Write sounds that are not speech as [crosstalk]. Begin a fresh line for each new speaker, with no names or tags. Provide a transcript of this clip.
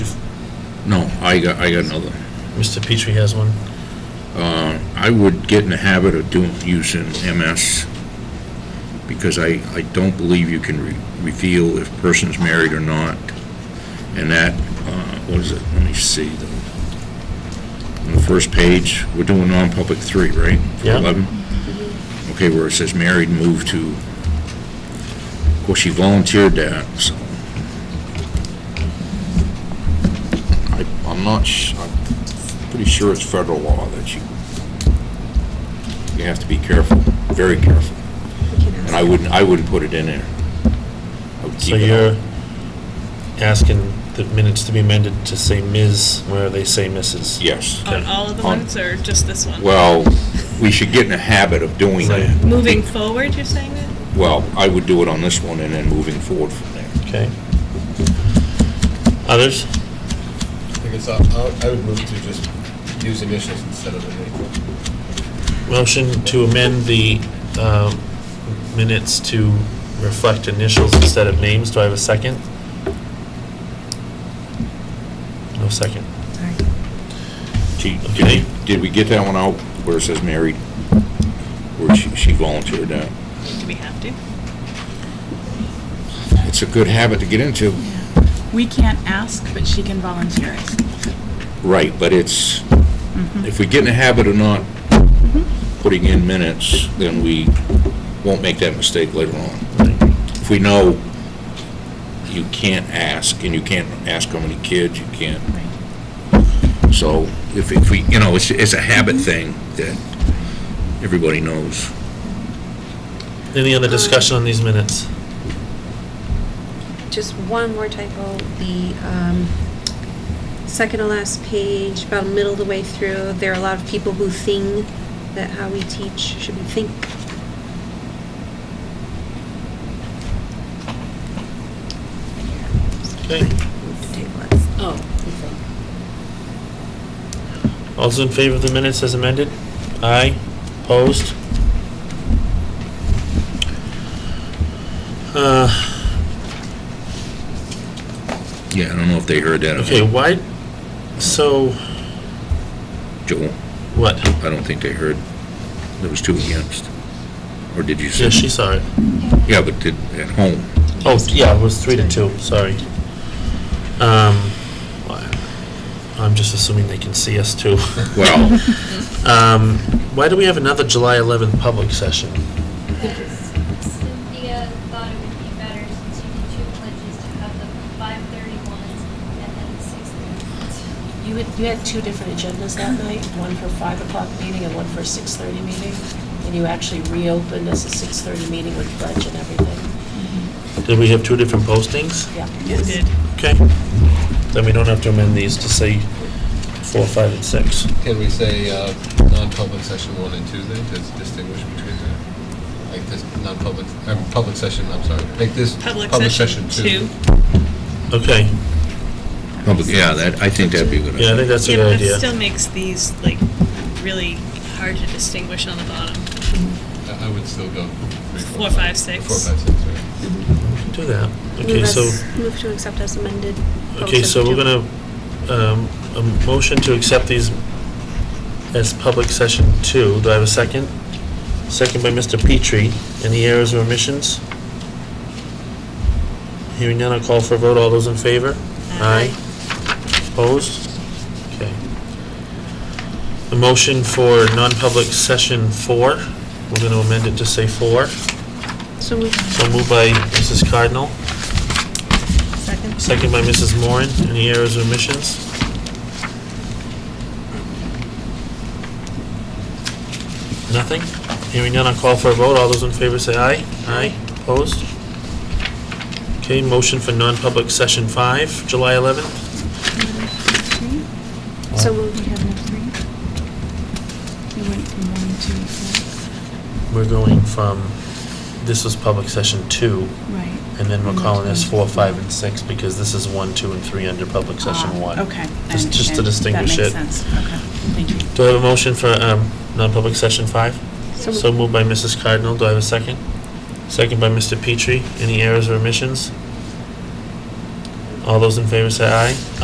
No, I got, I got another.
Mr. Petrie has one.
I would get in the habit of doing, using MS, because I, I don't believe you can re- reveal if person's married or not. And that, uh, what is it? Let me see. the- On the first page, we're doing non-public three, right? For
Yeah.
11? Okay, where it says married, moved to, of course, she volunteered that, so. I, I'm not, sh- I'm pretty sure it's federal law that you you have to be careful, very careful. And I wouldn't, I wouldn't put it in there. I would
So
keep it
you're
out.
asking the minutes to be amended to say Ms. where they say Mrs.
Yes.
On all of the
On-
ones or just this one?
Well, we should get in a habit of doing that.
Moving forward, you're saying that?
Well, I would do it on this one and then moving forward from there.
Okay. Others?
I guess I, I would move to just use initials instead of the name.
Motion to amend the um, minutes to reflect initials instead of names. Do I have a second? No second.
She, did we, did we get that one out where it says married? Where she, she volunteered that?
Do we have to?
It's a good habit to get into.
We can't ask, but she can volunteer it.
Right, but it's, if we get in the habit of not putting in minutes, then we won't make that mistake later on. If we know you can't ask, and you can't ask how many kids, you can't, so if, if we, you know, it's, it's a habit thing that everybody knows.
Any other discussion on these minutes?
Just one more typo, the um, second to last page, about middle of the way through, there are a lot of people who think that how we teach should be think.
Okay.
Move to table it.
Oh, you think.
All those in favor of the minutes as amended? Aye. Opposed? Uh,
Yeah, I don't know if they heard that. or not.
Okay, why, so,
Joel,
what?
I don't think they heard. There was two against. Or did you say?
Yeah, she saw it.
Yeah, but did, at home.
Oh, yeah, it was three to two, sorry. Um, I'm just assuming they can see us too.
Well,
[laughs] Um, Why do we have another July 11th public session?
Because Cynthia thought it would be better since you did two pledges to have the five thirty ones and then the six thirty ones.
You had, you had two different agendas that night, one for 5 o'clock meeting and one for 6:30 meeting, and you actually reopened as a 6:30 meeting with pledge and everything.
Did we have two different postings?
Yeah.
We did.
Okay. Then we don't have to amend these to say four, five, and six.
Can we say uh, non-public session one and two then, to distinguish between the, like this non-public, uh, public session, I'm sorry, make this
Public session two.
Okay,
public, yeah, that, I think that'd be a good idea.
yeah, I think that's a
Yeah, but
good
that still
idea.
makes these like really hard to distinguish on the bottom.
I I would still go. three,
Four, five, six.
Four, five, six, right.
Do that. Okay,
Move
so,
as- Move to accept as amended. Public
okay, so we're
session two.
gonna, um, a motion to accept these as public session two. Do I have a second? Second by Mr. Petrie. Any errors or omissions? Hearing none, I'll call for a vote. All those in favor?
Aye.
Opposed? Okay. A motion for non-public session four. We're gonna amend it to say four.
So we
So moved by Mrs. Cardinal.
Second.
Second by Mrs. Moran. Any errors or omissions? Nothing? Hearing none, I'll call for a vote. All those in favor say aye. Aye. Opposed? Okay, motion for non-public session five, July 11th.
So
We
moved.
have three. We went from one to four.
We're going from, this was public session two,
Right.
and then we're calling this four, five, and six because this is one, two, and three under public session
Ah,
one.
Okay. I
Just- Just to
understand.
distinguish it.
That makes sense, okay, thank you.
Do I have a motion for um, non-public session five?
So-
So moved by Mrs. Cardinal, do I have a second? Second by Mr. Petrie, any errors or omissions? All those in favor say aye.